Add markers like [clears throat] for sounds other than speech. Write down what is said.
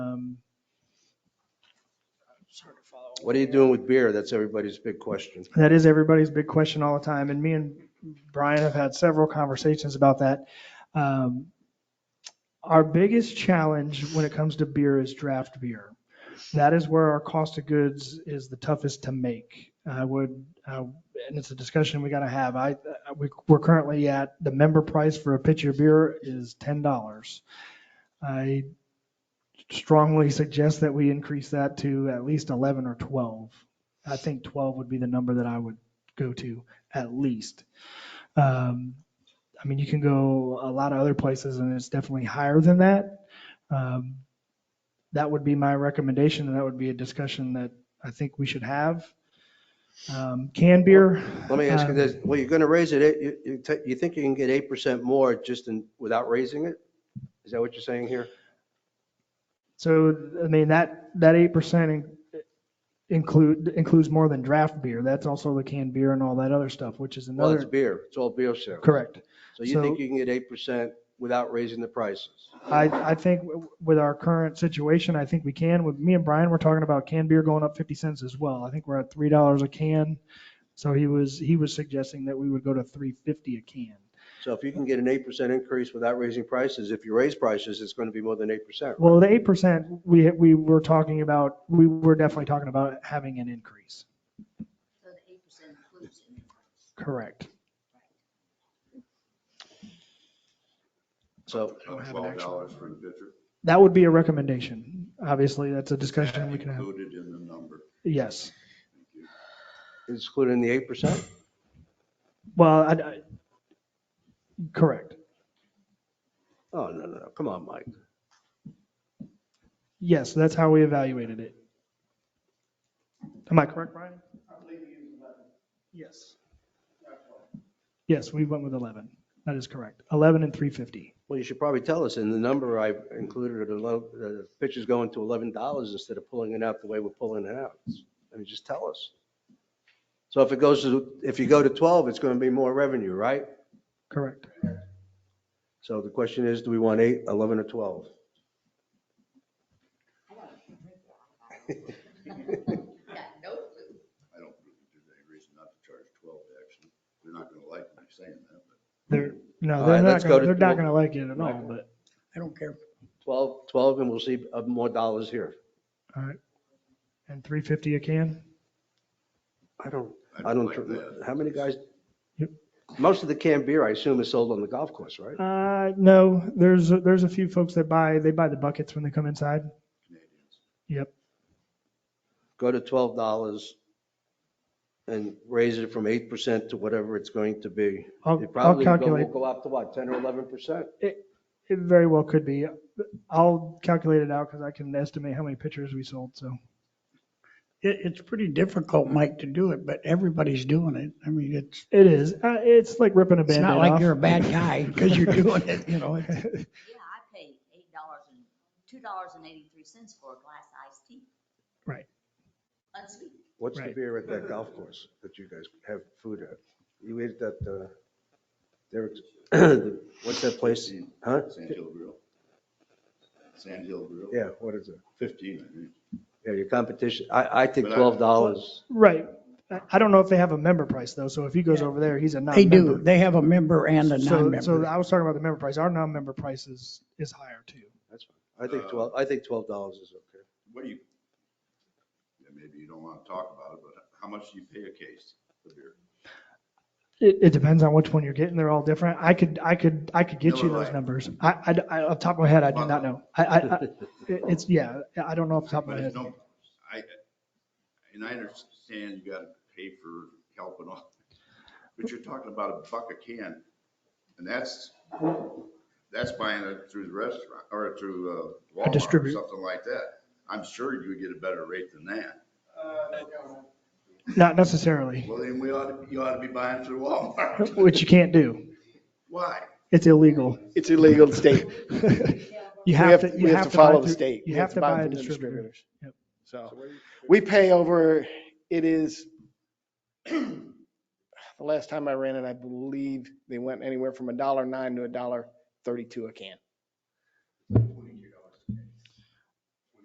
um, it's hard to follow. What are you doing with beer? That's everybody's big question. That is everybody's big question all the time. And me and Brian have had several conversations about that. Um, Our biggest challenge when it comes to beer is draft beer. That is where our cost of goods is the toughest to make. I would, uh, and it's a discussion we got to have. I, I- we- we're currently at, the member price for a pitcher of beer is $10. I strongly suggest that we increase that to at least 11 or 12. I think 12 would be the number that I would go to at least. Um, I mean, you can go a lot of other places and it's definitely higher than that. Um, that would be my recommendation and that would be a discussion that I think we should have. Um, canned beer. Let me ask you uh, this, well, you're going to raise it, you, you ta- you think you can get 8% more just in, without raising it? Is that what you're saying here? So, I mean, that, that 8% in- include, includes more than draft beer. That's also the canned beer and all that other stuff, which is Well, it's another, beer, it's all beer sales. correct. So you So- think you can get 8% without raising the prices? I, I think w- with our current situation, I think we can. With me and Brian, we're talking about canned beer going up 50 cents as well. I think we're at $3 a can. So he was, he was suggesting that we would go to 350 a can. So if you can get an 8% increase without raising prices, if you raise prices, it's going to be more than 8%. Well, the 8%, we, we were talking about, we were definitely talking about having an increase. So the eight percent includes in the Correct. So I don't have an Twelve actual. dollars for the pitcher That would be a recommendation. Obviously, that's a discussion we can have. included in the number. Yes. Thank you. it's included in the 8%? Well, I, I- correct. Oh, no, no, no, come on, Mike. Yes, that's how we evaluated it. Am I correct, Brian? Yes. Yes, we went with 11. That is correct. 11 and 350. Well, you should probably tell us, and the number I included, the lo- the pitch is going to $11 instead of pulling it out the way we're pulling it out. I mean, just tell us. So if it goes to, if you go to 12, it's going to be more revenue, right? Correct. So the question is, do we want 8, 11, or 12? price. Yeah, no clue. I don't really do any reason not to charge twelve, actually. They're not gonna like me saying that, but They're, no, All they're right, not, let's go gonna- to- they're not going to like it at all, but, I don't care. 12, 12, and we'll see uh, more dollars here. all right. And 350 a can? I don't, I I don't, don't like tr- that. how many guys? Yep. Most of the canned beer, I assume, is sold on the golf course, right? Uh, no, there's, there's a few folks that buy, they buy the buckets when they come inside. Canadians. Yep. Go to $12 and raise it from 8% to whatever it's going to be. I'll, It I'll probably will calculate. go- will go up to what, 10 or 11%? It very well could be. I'll calculate it out because I can estimate how many pitchers we sold, so. It, it's pretty difficult, Mike, to do it, but everybody's doing it. I mean, it's, It is. Uh, it's like ripping a it's band-aid not like you're a off. bad [laughs] guy because you're doing it, [laughs] you know. it's- Yeah, I paid eight dollars and, two dollars and eighty-three cents for a glass iced tea, Right. unsweetened. What's the Right. beer at that golf course that you guys have food at? You ate that, uh, Derek's, [coughs] what's that place? Huh? Sand Hill Grill. Sand Hill Grill. Yeah, what is it? Fifteen, I think. Yeah, your competition, I, I think But I- $12. Right. I- I don't know if they have a member price though, so if he goes over there, he's a They do. non-member. They have a member and a So, so non-member. I was talking about the member price. Our non-member price is, is higher too. That's fine. I think 12, I think $12 is okay. What do you? Yeah, maybe you don't wanna talk about it, but how much do you pay a case for beer? It, it depends on which one you're getting. They're all different. I could, I could, I could get you Miller those Lite. numbers. I, I, I- off the top of my head, I do not know. I, I, [laughs] I- it- it's, yeah, I don't know off the top of But my it's head. no, I, and I understand you gotta pay for help and all, but you're talking about a buck a can, and that's, that's buying it through the restaurant, or through uh, Walmart or distributor. something like that. I'm sure you would get a better rate than that. Not necessarily, Well, then we ought, to- you ought to be buying through Walmart. [laughs] which you can't do. Why? It's illegal. It's illegal in state. You We have to, you we have to buy follow the through- state. You We have to it buy a from the distributor. Yep. So we pay over, it is, [clears throat] the last time I ran it, I believe they went anywhere from a dollar nine to a dollar thirty-two a can.